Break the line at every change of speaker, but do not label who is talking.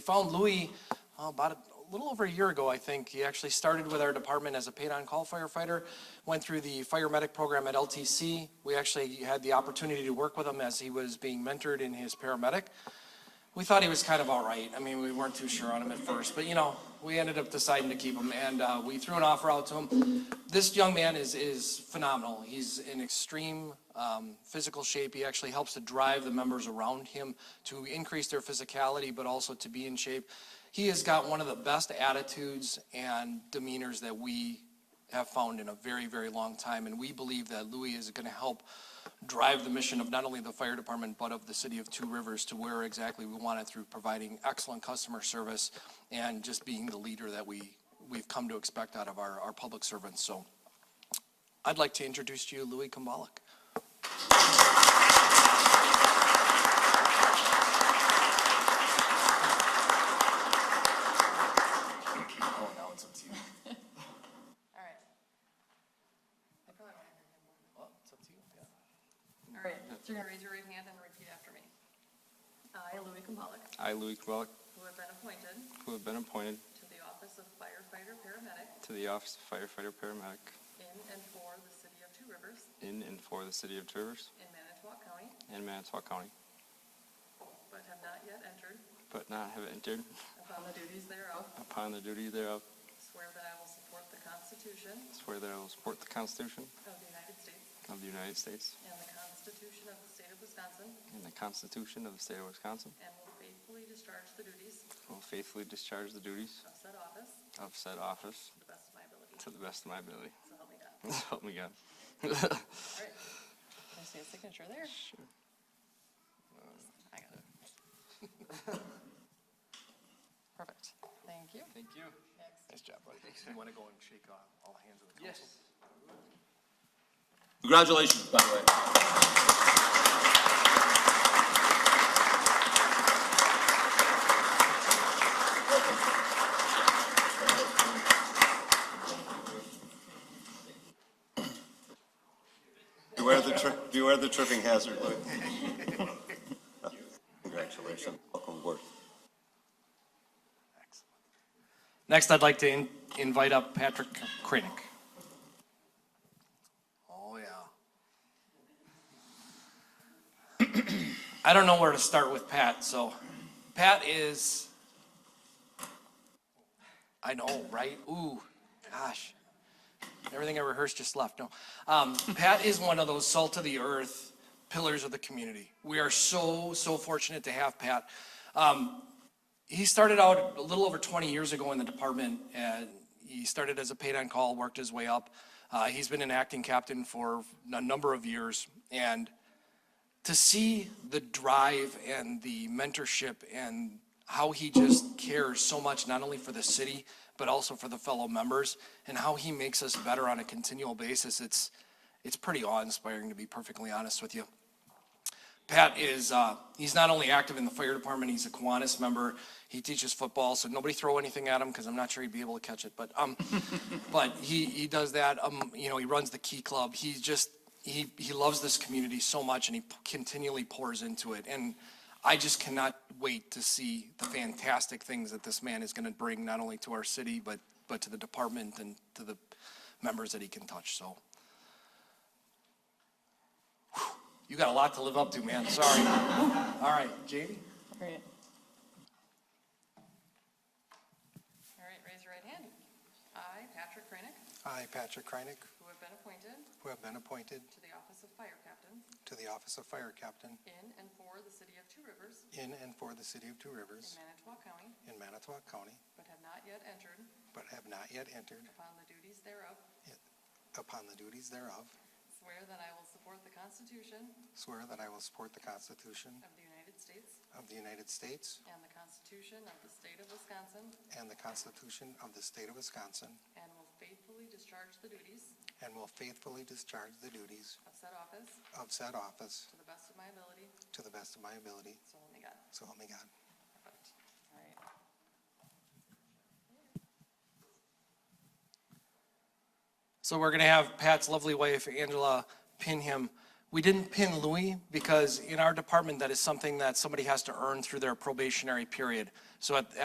found Louis oh, about a little over a year ago, I think. He actually started with our department as a paid-on-call firefighter, went through the fire medic program at LTC. We actually had the opportunity to work with him as he was being mentored in his paramedic. We thought he was kind of all right. I mean, we weren't too sure on him at first, but you know, we ended up deciding to keep him, and uh, we threw an offer out to him. This young man is is phenomenal. He's in extreme um, physical shape. He actually helps to drive the members around him to increase their physicality, but also to be in shape. He has got one of the best attitudes and demeanors that we have found in a very, very long time, and we believe that Louis is going to help drive the mission of not only the fire department, but of the city of Two Rivers to where exactly we want it through providing excellent customer service and just being the leader that we, we've come to expect out of our, our public servants. So I'd like to introduce to you Louis Kumbalik.
Oh, Oh, now it's up to you.
All right. I probably don't have your hand on. All right, so you're gonna raise your right hand and repeat after me. I, Louis Kumbalik,
I, Louis Kubalik,
who have been appointed
who have been appointed
to the office of firefighter paramedic
to the office of firefighter paramedic
in and for the city of Two Rivers
in and for the city of Two Rivers
in Manitowoc County,
and Manitowoc County,
but have not yet entered
but not have entered
upon the duties thereof,
upon the duty thereof,
swear that I will support the Constitution
swear that I will support the Constitution
of the United States
of the United States
and the Constitution of the state of Wisconsin,
and the Constitution of the state of Wisconsin,
and will faithfully discharge the duties
and will faithfully discharge the duties
of said office
of said office
to the best of my ability.
to the best of my ability.
So help me God.
So Help me God.
All right. Can I see a signature there? Sure. I got it. Perfect. Thank you.
Thank you.
Next.
Nice job, buddy.
You want to go and shake uh, all hands of the council?
Yes.
Congratulations, by the way.
Beware the, tri- beware the tripping hazard, Lou. Congratulations, welcome aboard.
Next, I'd like to in- invite up Patrick Kranick. Oh, yeah. I don't know where to start with Pat, so Pat is, I know, right? Ooh, gosh. Everything I rehearsed just left. No. Um, Pat is one of those salt of the earth pillars of the community. We are so, so fortunate to have Pat he started out a little over 20 years ago in the department and he started as a paid on call worked his way up uh, he's been an acting captain for a number of years and to see the drive and the mentorship and how he just cares so much not only for the city but also for the fellow members and how he makes us better on a continual basis it's it's pretty awe-inspiring to be perfectly honest with you Pat is, uh, he's not only active in the fire department, he's a Kiwanis member. He teaches football, so nobody throw anything at him because I'm not sure he'd be able to catch it. But, um, but he, he does that. Um, you know, he runs the Key Club. He just, he, he loves this community so much and he p- continually pours into it. And I just cannot wait to see the fantastic things that this man is going to bring not only to our city, but, but to the department and to the members that he can touch. So you got a lot to live up to, man. Sorry. All right, Jamie?
Great. All right, raise your right hand. I, Patrick Kranick,
I, Patrick Kreinick,
who have been appointed
who have been appointed
to the office of fire captain
to the office of fire captain
in and for the city of Two Rivers
in and for the city of Two
in
Rivers
Manitowoc County,
in Manitowoc County,
but have not yet entered
but have not yet entered
upon the duties thereof,
upon the duties thereof,
swear that I will support the Constitution
swear that I will support the Constitution
of the United States
of the United States
And the Constitution of the State of Wisconsin.
and the Constitution of the state of Wisconsin,
And will faithfully discharge the duties
and will faithfully discharge the duties
of said office
of said office
to the best of my ability.
to the best of my ability,
So help me God.
so help me God.
Perfect. All right.
So we're going to have Pat's lovely wife, Angela, pin him We didn't pin Louis because in our department, that is something that somebody has to earn through their probationary period. So at,